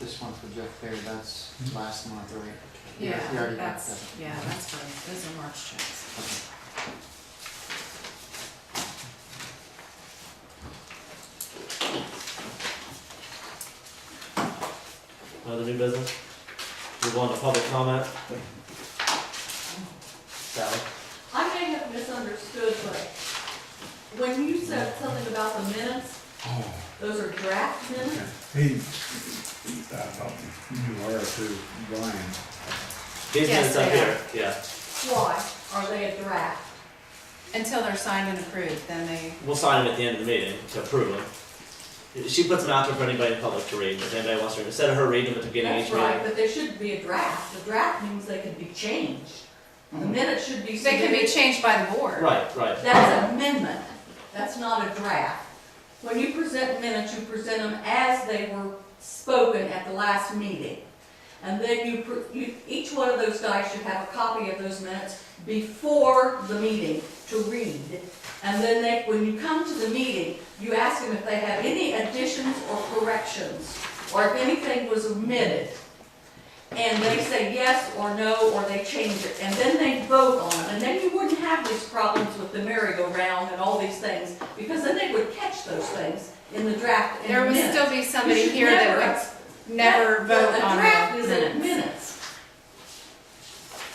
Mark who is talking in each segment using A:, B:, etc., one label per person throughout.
A: this one for Jeff Fair, that's last month, right? You
B: Yeah,
A: already got
B: that's,
A: that.
B: yeah, that's for, those are March checks.
A: Okay.
C: Another new business? Move on to public comment. Sally?
D: I may have misunderstood, but when you said something about the minutes,
A: Oh.
D: those are draft minutes?
E: He, I thought you were too, Brian.
C: These
B: Yes,
C: minutes up
B: they
C: here, yeah.
D: Why are they a draft?
B: Until they're signed and approved, then they,
C: We'll sign them at the end of the meeting to approve them. She puts them out there for anybody in public to read, but if anybody wants to, instead of her reading them at the beginning of
D: That's
C: each
D: right,
C: meeting.
D: but they should be a draft. A draft means they can be changed. The minutes should be
B: Mm-hmm. they can be
D: submitted.
B: changed by the board.
C: Right, right.
D: That's amendment. That's not a draft. When you present minutes, you present them as they were spoken at the last meeting. And then you, pr- you, each one of those guys should have a copy of those minutes before the meeting to read. And then they, when you come to the meeting, you ask them if they have any additions or corrections, or if anything was omitted. And they say yes or no, or they change it, and then they vote on it, and then you wouldn't have these problems with the merry-go-round and all these things, because then they would catch those things in the draft in
B: There would
D: minutes.
B: still be somebody
D: You should
B: here
D: never-
B: that would never
D: Well,
B: vote on
D: A draft
B: the
D: is in
B: minutes.
D: minutes.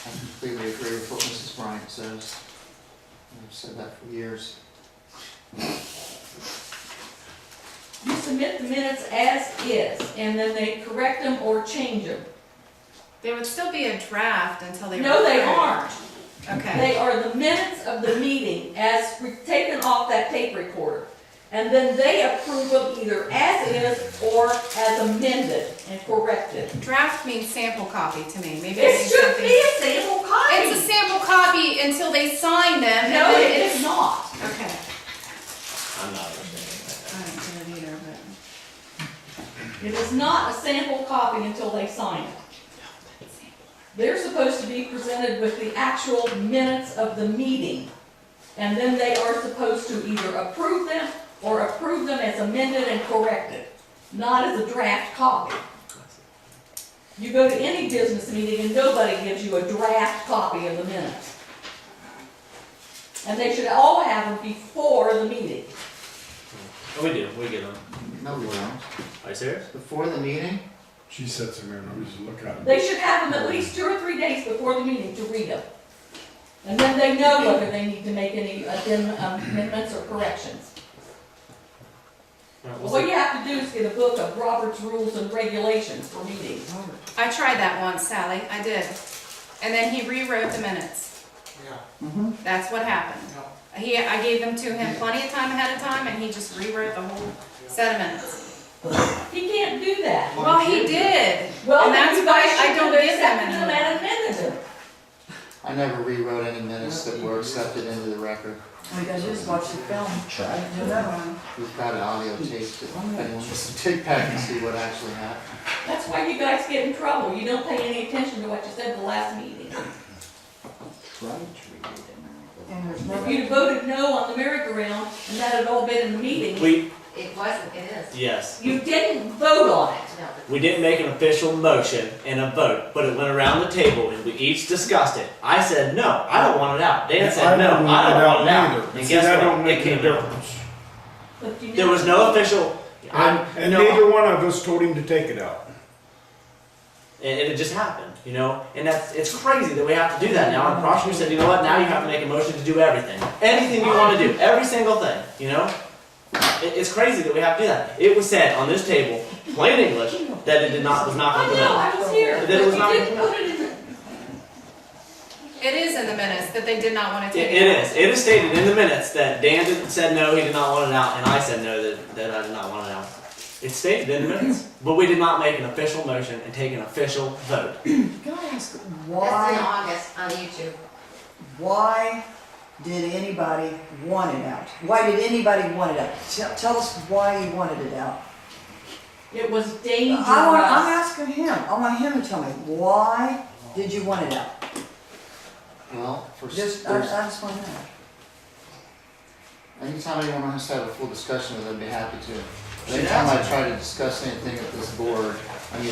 A: I completely agree with what Mrs. Bryant says. I've said that for years.
D: You submit the minutes as is, and then they correct them or change them.
B: They would still be a draft until they.
D: No,
B: were
D: they
B: approved.
D: aren't.
B: Okay,
D: They are the minutes of the meeting as re- taken off that tape recorder. And then they approve them either as is or as amended and corrected.
B: draft means sample copy to me, maybe. I
D: It
B: need
D: should
B: something-
D: be a sample
B: It's
D: copy.
B: a sample copy until they sign them. and
D: No,
B: then
D: it
B: it's-
D: is not.
B: Okay,
C: I'm not understanding
B: I don't get it either, but.
D: It is not a sample copy until they sign it. They're supposed to be presented with the actual minutes of the meeting. And then they are supposed to either approve them or approve them as amended and corrected, not as a draft copy. You go to any business meeting and nobody gives you a draft copy of the minutes. And they should all have them before the meeting.
C: that. Oh, we do, we get them.
A: No, we don't.
C: Are you serious?
A: Before the meeting,
E: She sits there and we just look at
D: They
E: it.
D: should have them at least two or three days before the meeting to read them. And then they know whether they need to make any addend- um, amendments or corrections.
C: All right, we'll
D: What
C: see.
D: you have to do is get a book of Robert's Rules and Regulations for meetings.
B: I tried that once, Sally, I did. And then he rewrote the minutes.
A: Mhm.
B: That's what happened. He, I gave them to him plenty of time ahead of time, and he just rewrote the whole set of minutes.
D: He can't do that.
B: Well, he did.
D: Well,
B: And
D: then
B: that's
D: you
B: why
D: guys
B: I
D: should
B: don't
D: have
B: give them
D: accepted them
B: anymore.
D: and amended them.
A: I never rewrote any minutes that were accepted into the record.
F: Oh, you guys just watch the film. Try.
A: We've got an audio tape that if anyone wants to take back and see what actually happened.
D: That's why you guys get in trouble. You don't pay any attention to what you said the last meeting.
F: And there's
D: If
F: no,
D: you'd have voted no on the merry-go-round and that had all been in the meeting,
C: We,
G: It wasn't, it is.
C: yes,
D: you didn't vote on it.
G: No,
C: we didn't make an official motion and a vote, but it went around the table and we each discussed it. I said, no, I don't want it out. Dan said, no, I don't want it out. And
E: See, that
C: guess
E: don't
C: what?
E: make
C: It
E: any
C: came out.
E: difference.
D: But you
C: There was
D: never-
C: no official, I,
E: And,
C: you
E: and
C: know,
E: neither one of us told him to take it out.
C: and, and it just happened, you know. And that's it's crazy that we have to do that now. And prosecutor said, you know what? Now you have to make a motion to do everything, anything you want to do, every single thing, you know. It, it's crazy that we have to do that. It was said on this table, plain English, that it did not was not
D: I know,
C: implemented.
D: Oh, I was here,
C: That
D: but
C: it was
D: you
C: not-
D: didn't put it in the
B: It is in the minutes that they did not want to
C: It,
B: take
C: it
B: it out.
C: is. It is stated in the minutes that Dan did, said no, he did not want it out, and I said no, that, that I did not want it out. It's stated in the minutes, but we did not make an official motion and take an official vote.
F: can I ask,
G: that's in
F: why,
G: August on YouTube.
F: why did anybody want it out? Why did anybody want it out? Tell, tell us why you wanted it out.
D: It was
F: I
D: dangerous.
F: want, I'm asking him, I want him to tell me, why did you want it out?
A: Well, for, s-
F: Just, uh, I, I
A: there's,
F: just want to know.
A: anytime anyone wants to have a full discussion with it, I'd be happy to. Anytime I try to discuss anything at this board,